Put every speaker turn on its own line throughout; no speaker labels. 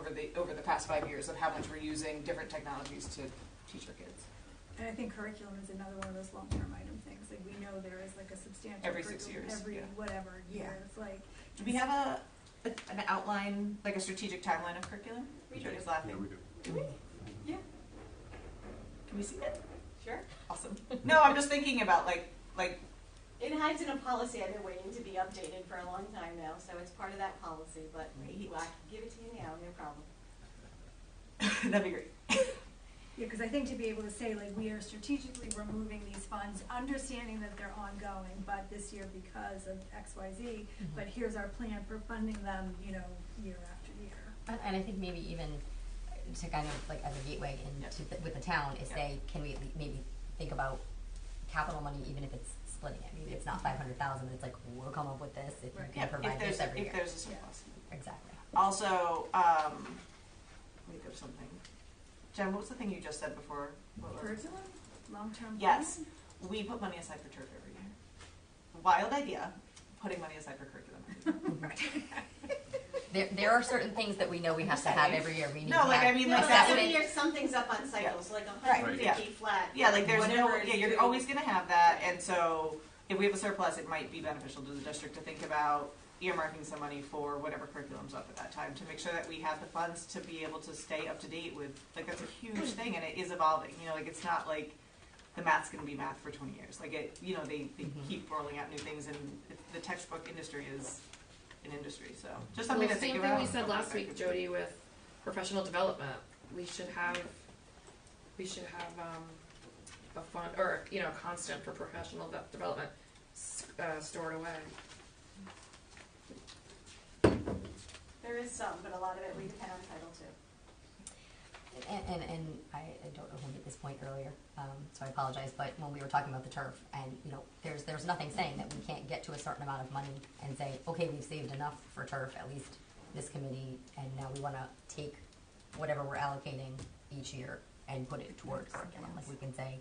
the, over the past five years of how much we're using different technologies to teach our kids.
And I think curriculum is another one of those long-term item things, like we know there is like a substantial.
Every six
curriculum
years,
Every
yeah.
whatever year,
Yeah.
it's like.
Do we have a, a an outline, like a strategic timeline of curriculum?
We do.
Jody's
Yeah,
laughing.
we do.
Do we? Yeah. Can we see that?
Sure.
Awesome. No, I'm just thinking about like like
It hides in a policy I've been waiting to be updated for a long time now, so it's part of that policy, but
Right.
well, I can give it to you now, no problem.
that'd be great.
Yeah, because I think to be able to say, like, we are strategically removing these funds, understanding that they're ongoing, but this year because of X, Y, Z, but here's our plan for funding them, you know, year after year.
And and I think maybe even to kind of like as a gateway
Yeah.
into, the- with the town, is
Yeah.
say, can we at lea- maybe think about capital money, even if it's splitting it, maybe it's not five hundred thousand, it's like, we'll come up with this if you
Right.
can
if
provide
there's
this every year.
if there's a surplus.
Exactly.
Also, um, let me think of something. Jen, what was the thing you just said before? What was it?
Curriculum, long-term plan?
Yes. We put money aside for turf every year. Wild idea, putting money aside for curriculum.
There, there are certain things that we know we have to have every year, we need to
No,
have.
like, I mean,
No,
like
but
that
every
would-
year something's up on cycles, like a
Right,
hundred
yeah.
fifty flat.
Yeah, like there's no,
whatever is
yeah, you're
due.
always gonna have that, and so if we have a surplus, it might be beneficial to the district to think about earmarking some money for whatever curriculum's up at that time, to make sure that we have the funds to be able to stay up to date with, like, that's a
Hmm.
huge thing, and it is evolving, you know, like, it's not like the math's gonna be math for twenty years, like, it, you know, they, they
Mm-hmm.
Mhm.
keep rolling out new things, and it- the textbook industry is an industry, so, just something to
well,
think
same
about.
thing we said last week, Jody, with professional development. We should have, we should have um, a fund or you know a constant for professional de- development s- uh, stored away.
There is some, but a lot of it we depend on Title II.
And, and, and I, I don't know who made this point earlier, um, so I apologize, but when we were talking about the turf, and, you know, there's, there's nothing saying that we can't get to a certain amount of money and say, okay, we've saved enough for turf, at least this committee, and now we wanna take whatever we're allocating each year and put it towards curriculum, like we can say,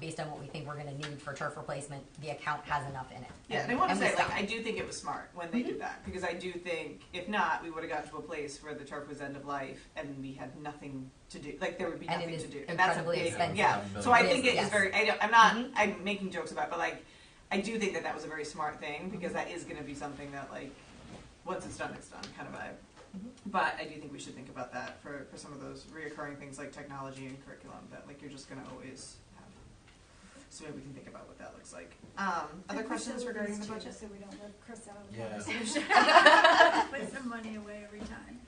based on what we think we're gonna need for turf replacement, the account has enough in it.
Yeah, and I want to
we
say, like,
stop. Mm-hmm.
I do think it was smart when they did that because I do think if not, we would have gotten to a place where the turf was end of life and we had nothing to do. Like there would be
And it
nothing
is
to do.
incredibly
and that's a big,
expensive.
Yeah. So I
It
think it is
is, yes.
very. I don't, I'm not.
Mhm.
I'm making jokes about, it, but like, I do think that that was a very smart thing because
Mm-hmm.
that is going to be something that like, once it's done, it's done, kind of vibe.
Mhm.
But I do think we should think about that for, for some of those reoccurring things like technology and curriculum that like you're just going to always have. So maybe we can think about what that looks like. Um, other
And we should
questions
look at
regarding
this
the
too,
budget?
So we don't let Chris out of the
Yeah.
conversation. Put some money away every time.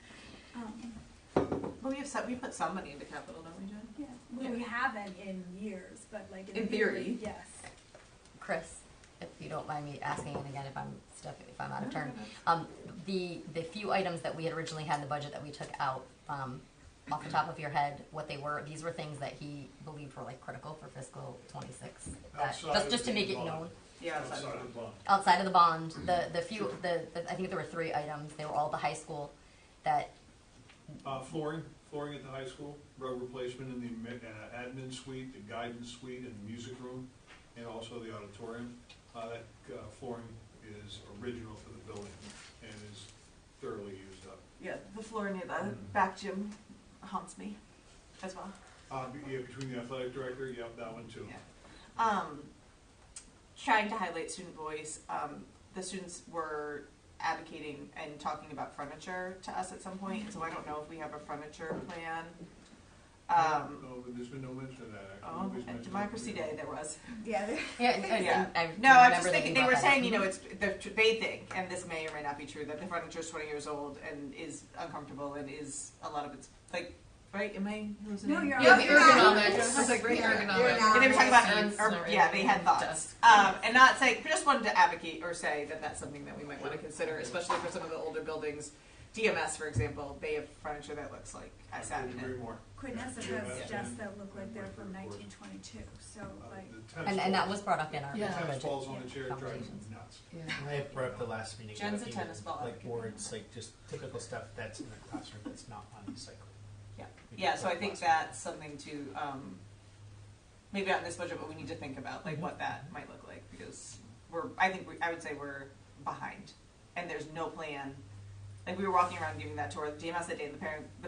Um,
Well, we have some, we put some money into capital, don't we, Jen?
Yeah, well, we haven't in years, but like in,
In theory.
yes.
Chris, if you don't mind me asking, and again, if I'm stuck, if I'm out of
No, no,
turn,
no.
um, the, the few items that we had originally had in the budget that we took out, um, off the top of your head, what they were, these were things that he believed were like critical for fiscal twenty-six. that-
Outside
Just,
of
just to
the
make it
bond.
known,
Yeah, that's not-
Outside of the bond.
outside of the bond, the, the few, the, the, I think there were three items, they were all the high school, that,
Uh, flooring, flooring at the high school, rug replacement in the admi- uh, admin suite, the guidance suite, and the music room, and also the auditorium. Uh, that uh, flooring is original for the building and is thoroughly used up.
yeah, the floor near the
Mhm.
back gym haunts me as well.
Uh, be- yeah, between the athletic director, yep, that one too.
Yeah. Um, trying to highlight student voice, um, the students were advocating and talking about furniture to us at some point, and so I don't know if we have a furniture plan. Um,
No, but there's been no mention of that, actually.
oh,
Nobody's
at
mentioned
Democracy
it.
Day, there was.
Yeah, there-
yeah, and- and-
Yeah.
and I remember
No, I'm just
that
thinking,
you
they
brought
were
that up.
saying, you know, it's, the, they think, and this may or may not be true, that the furniture is twenty years old and is uncomfortable and is, a lot of it's, like, right, am I losing?
No,
it?
you're
Yeah,
on.
the
I was
ergonomics.
like,
the ergonomics.
And they were talking
Sense,
about, or-
not
yeah, they had
really
thoughts.
dust.
Um, and not saying, just wanted to advocate or say that that's something that we might wanna consider, especially for some of the older buildings. DMS, for example, they have furniture that looks like I
I
sat
couldn't
in
agree
it.
more.
Quinessa
Yeah.
has
Yeah.
desks that look like they're from
Yeah.
nineteen twenty-two, so
Uh,
like,
the tennis
And, and that was
balls-
brought up in our
Yeah.
our
Tennis
budget
balls on a chair drives me
conversations.
nuts.
Yeah.
I had brought up the last meeting.
Jen's
about
a
even,
tennis ball
Like
advocate.
boards, like just typical stuff that's in the classroom that's not on the cycle.
Yeah. Yeah, so I think that's something to, um, maybe not in this budget, but we need to think about, like, what that might look like, because we're, I think, we I would say we're behind, and there's no plan. Like, we were walking around giving that tour, DMS that day, and the parent, the